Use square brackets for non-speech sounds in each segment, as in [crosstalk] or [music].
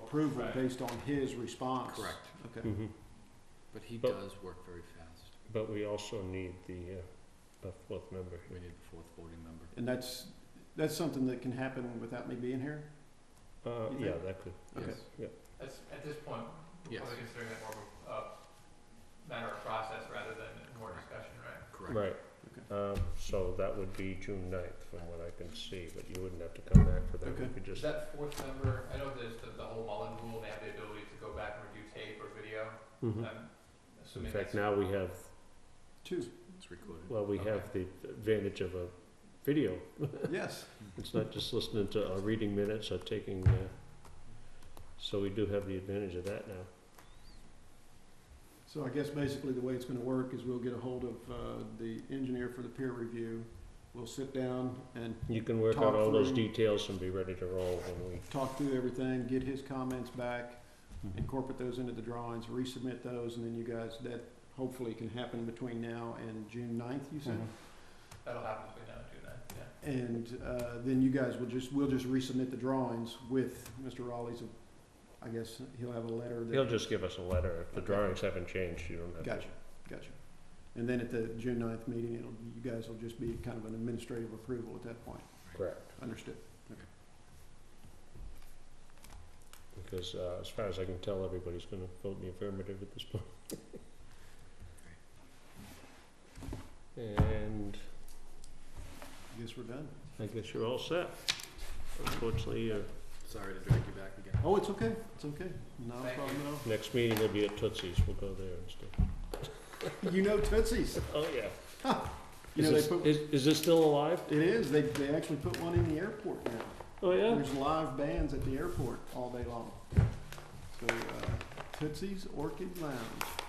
approval Right. based on his response. Correct. Okay. But he But- does work very fast. Mm-hmm. But we also need the, uh, a fourth member We here. need the fourth voting member. And that's, that's something that can happen without me being here? Uh, You yeah, think? that could, Okay. Yes. That's, at this point, we're Yes. probably considering that more of a uh, matter of process rather than more discussion, right? Correct. right. Um, so that would be June ninth from what I can see, but you wouldn't have to come back for that. We Okay. could Is just, that fourth member, I know there's the, the whole Mullen rule, they have the ability to go back and review tape or video. Mhm. I'm in assuming fact, that's. now we have, Two, It's recorded. well, we have the advantage of a video. yes. It's not just listening to, or reading minutes or taking, uh, so we do have the advantage of that now. So I guess basically the way it's gonna work is we'll get a hold of, uh, the engineer for the peer review. We'll sit down and You can work Talk out all those through- details and be ready to roll when we, talk through everything, get his comments back, Mm-hmm. incorporate those into the drawings, resubmit those, and then you guys, that hopefully can happen between now and June ninth, you Mm-hmm. said? That'll happen between now and June ninth, yeah. And uh, then you guys will just, we'll just resubmit the drawings with Mr. Raleigh's, I guess he'll have a letter that. he'll just give us a letter. If the Okay. drawings haven't changed, you don't have to. Gotcha, gotcha. And then at the June 9th meeting, it'll, you guys will just be kind of an administrative approval at that point. Correct. Understood. Because uh, as far as I can tell, everybody's going to vote in the affirmative at this point. And I Guess we're done. I guess you're all set. Unfortunately, uh, Sorry to drag you back again. Oh, it's okay, it's okay. Not a Thank problem at next meeting will be at Tootsie's. We'll go there instead. all. You know Tootsie's. Oh, yeah. You Is know, this- they put, Is is this still alive? it is, they, they actually put one in the airport now. Oh, yeah? There's live bands at the airport all day long. So uh, Tootsie's Orchid Lounge,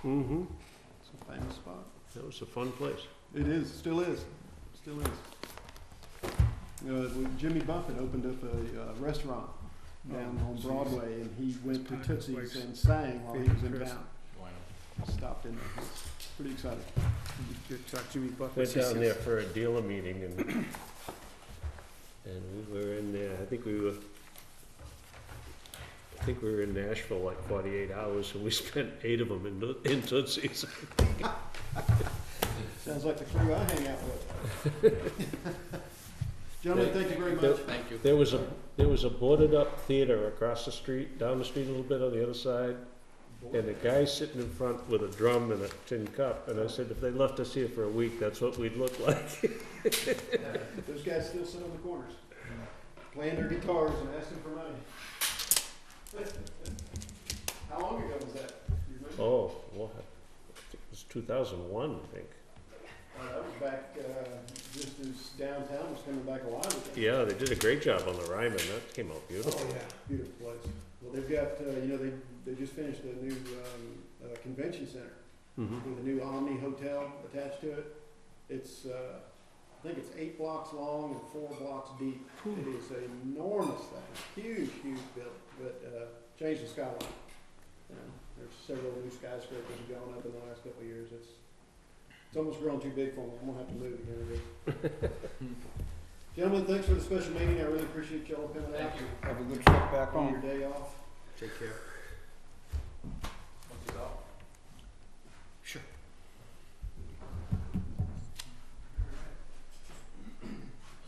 Mm-hmm. it's a famous spot. That was a fun place. It is, still is, still is. Uh, well, Jimmy Buffett opened up a uh, restaurant down Oh, on geez. Broadway, and he went to Packed Tootsie's place. and sang while he was in Favorite town. Why not? Stopped in, there. It's pretty exciting. Went down there for a dealer meeting and, and we were in there, I think we were, I think we were in Nashville like forty-eight hours and we [laughs] spent eight of them in, Toot- in Tootsie's. Sounds like the crew I hang out with. [laughs] Gentlemen, thank you very much. Thank you. There was a, there was a boarded up theater across the street, down the street a little bit on the other side. And a guy sitting in front with a drum and a tin cup, and I said, if they left us here for a week, that's what we'd look [laughs] like. Those guys still sit on the corners, playing their guitars and asking for money. How long ago was that? Do you remember? Oh, what? It was two thousand one, I think. Uh, That was back, uh, just as downtown was coming back alive again. Yeah, they did a great job on the Ryman. That came out beautiful. Oh, yeah, beautiful place. Well, they've got, uh, you know, they, they just finished a new, um, uh, convention center Mm-hmm. with a new Omni Hotel attached to it. It's, uh, I think it's eight blocks long and four blocks deep. It is an enormous thing, huge, huge building, but, uh, changed the skyline. You know, There's several new skyscrapers that have gone up in the last couple of years. It's, it's almost grown too big for me. I'm gonna have to move again. I guess. [laughs] Gentlemen, thanks for the special meeting. I really appreciate y'all coming out. Thank you. Have a good trip back On home. your day off. Take care. Once it's all. Sure.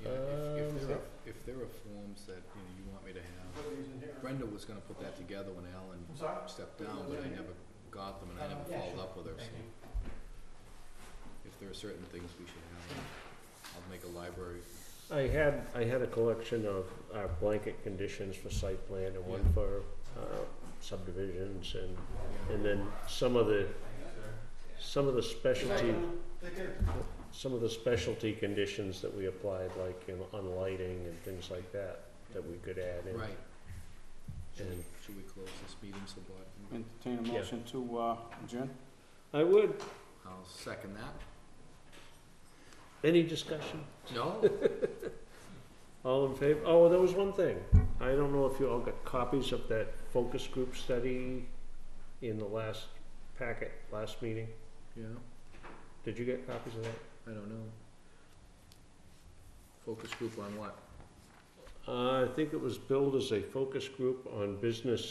Yeah, if, Uh, if there are, if there are forms that, you know, you want me to have, Put these in here. Brenda was gonna put that together when Alan I'm sorry? stepped down, but I never got them and I never Uh, yeah, followed sure. Oh, up with her, Thank so. you. If there are certain things we should have, I'll make a library. I had I had a collection of our blanket conditions for site plan and one Yeah. for uh, subdivisions and and then some of the some of the specialty Take care. some of the specialty conditions that we applied like in, on lighting and things like that that we could add in. Right. Should we, And- should we close this meeting so Bob can, Entertain a Yeah. motion to, uh, adjourn. I would. I'll second [laughs] that. Any discussion? No? All in favor? Oh, there was one thing. I don't know if you all got copies of that focus group study in the last packet, last meeting. Yeah, Did you get copies of that? I don't know. Focus group on what? Uh, I think it was billed as a focus group on business